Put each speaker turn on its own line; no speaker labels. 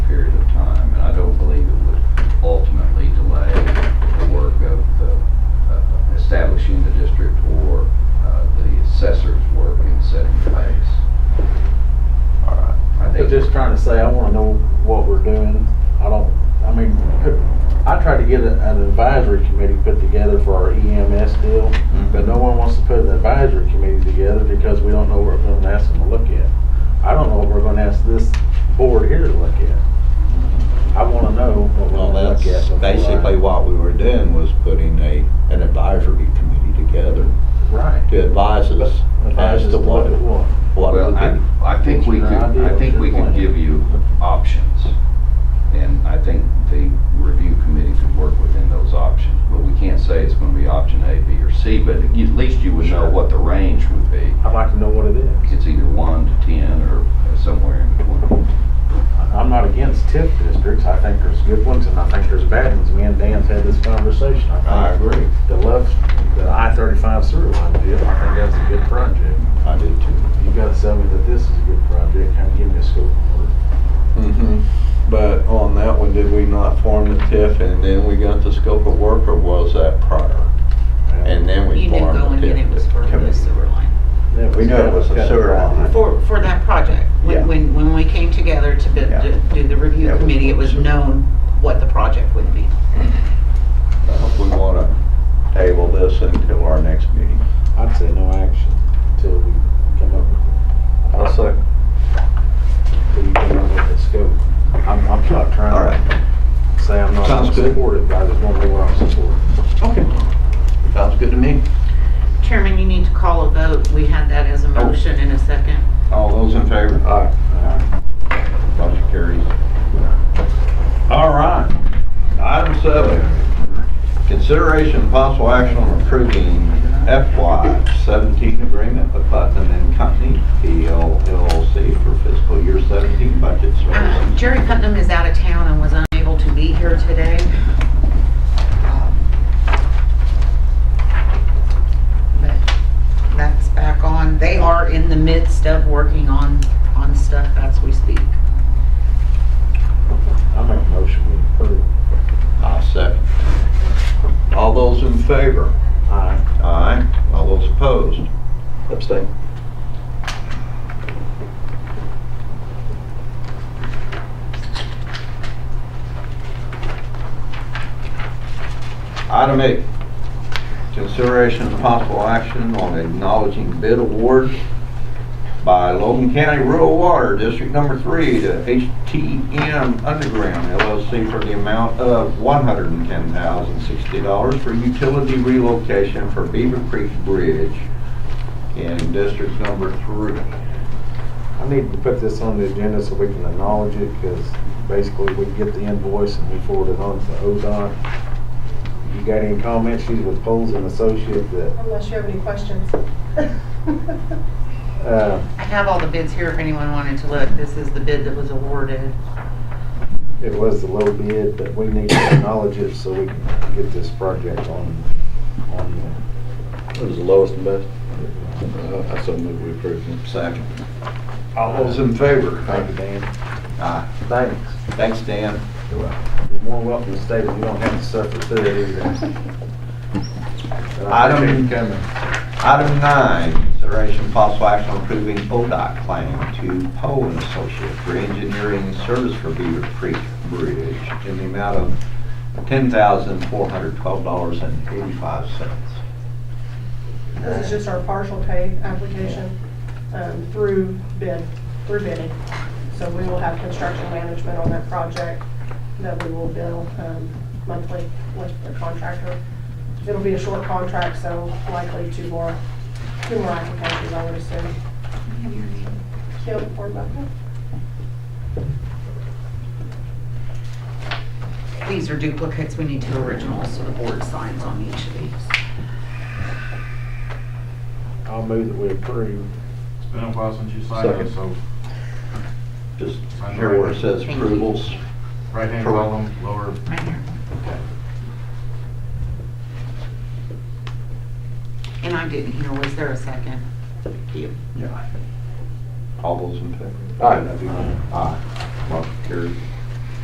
uh,
get a- an advisory committee put together for our EMS deal, but no one wants to put an advisory committee together because we don't know what we're gonna ask them to look at. I don't know what we're gonna ask this board here to look at. I wanna know what we're
Well,
gonna
that's
look at. before I-
basically what we were doing was putting a, an advisory committee together
Right.
to advise us
Advise
as
us
to what,
look at what.
what
Well,
would
I,
be.
I think we
It's
could,
your idea,
I
it's
think
your
we could
plan.
give you options. And I think the review committee could work within those options. But we can't say it's gonna be option A, B, or C, but at least you would know
Sure.
what the range would be.
I'd like to know what it is.
It's either one to ten or somewhere in between.
I- I'm not against TIF districts. I think there's good ones and I think there's bad ones. Me and Dan's had this conversation. I
I
think
agree,
the love, the I-35 sewer line deal, I think that's a good project.
I do too.
You gotta tell me that this is a good project, kind of give me a scope of work.
Mm-hmm. But on that one, did we not form the TIF and then we got the scope of work or was that prior? And then we
You knew
formed the TIF.
going in it was for the
committee.
sewer line,
That
We knew it was a
kind of-
sewer line.
for, for that project.
Yeah.
When, when, when we came together to bid-
Yeah.
to do the review
That was
committee, it was
awesome.
known what the project would be.
Well, We wanna table this until our next meeting.
I'd say no action until we come up with. I'll say. Till you come up with a scope. I'm, I'm not
All
trying
right.
to say I'm not
Sounds good.
supportive, but I just want to know what I'm supporting.
Okay. Sounds good to me.
Chairman, you need to call a vote. We had that as a
Oh.
motion in a second.
All those in favor? Aye.
All
Motion carries.
right.
Item seven, consideration and possible action on approving FY seventeen agreement with Putnam and Company, PL LLC for fiscal year seventeen budget
Um,
services.
Jerry Putnam is out of town and was unable to be here today. Um, But that's back on. They are in the midst of working on, on stuff as we speak.
I make a motion we approve.
I second. All those in favor?
Aye.
Aye. All those opposed?
Abstain.
Item eight, consideration and possible action on acknowledging bid award by Logan County Rural Water District Number Three to HTM Underground LLC for the amount of one hundred and ten thousand sixty dollars for utility relocation for Beaver Creek Bridge in District Number Three.
I need to put this on the agenda so we can acknowledge it, because basically we get the invoice and we forward it on to ODOT. You got any comments? She's with Poles and Associates that,
I'm not sure of any questions.
uh,
I have all the bids here if anyone wanted to look. This is the bid that was awarded.
it was the low bid, but we need to acknowledge it so we can get this project on, on
It was the lowest and best. Uh, I so moved we approved it.
Second. All those in favor?
the, thank you, Dan.
Aye.
Thanks.
Thanks, Dan.
You're more welcome to stay, but you don't have to suffer through it either. But I
Item-
appreciate you coming.
Item nine, consideration of possible action on approving ODOT claim to Poe and Associates for engineering service for Beaver Creek Bridge in the amount of ten thousand four hundred twelve dollars and eighty-five cents.
This is just our partial pay application um, through bid, through bidding. So we will have construction management on that project that we will bill um, monthly with the contractor. It'll be a short contract, so likely two more, two more applications, I would assume. Kim Hornbuckle?
These are duplicates. We need two originals, so the board signs on each of these.
I'll move that we approve.
It's been a while since you signed it,
Second.
so
Just here where it says approvals.
right-hand
Correct.
column, lower
Right here. And I didn't hear, was there a second?
All those in favor?
Aye.
Aye. Motion carried.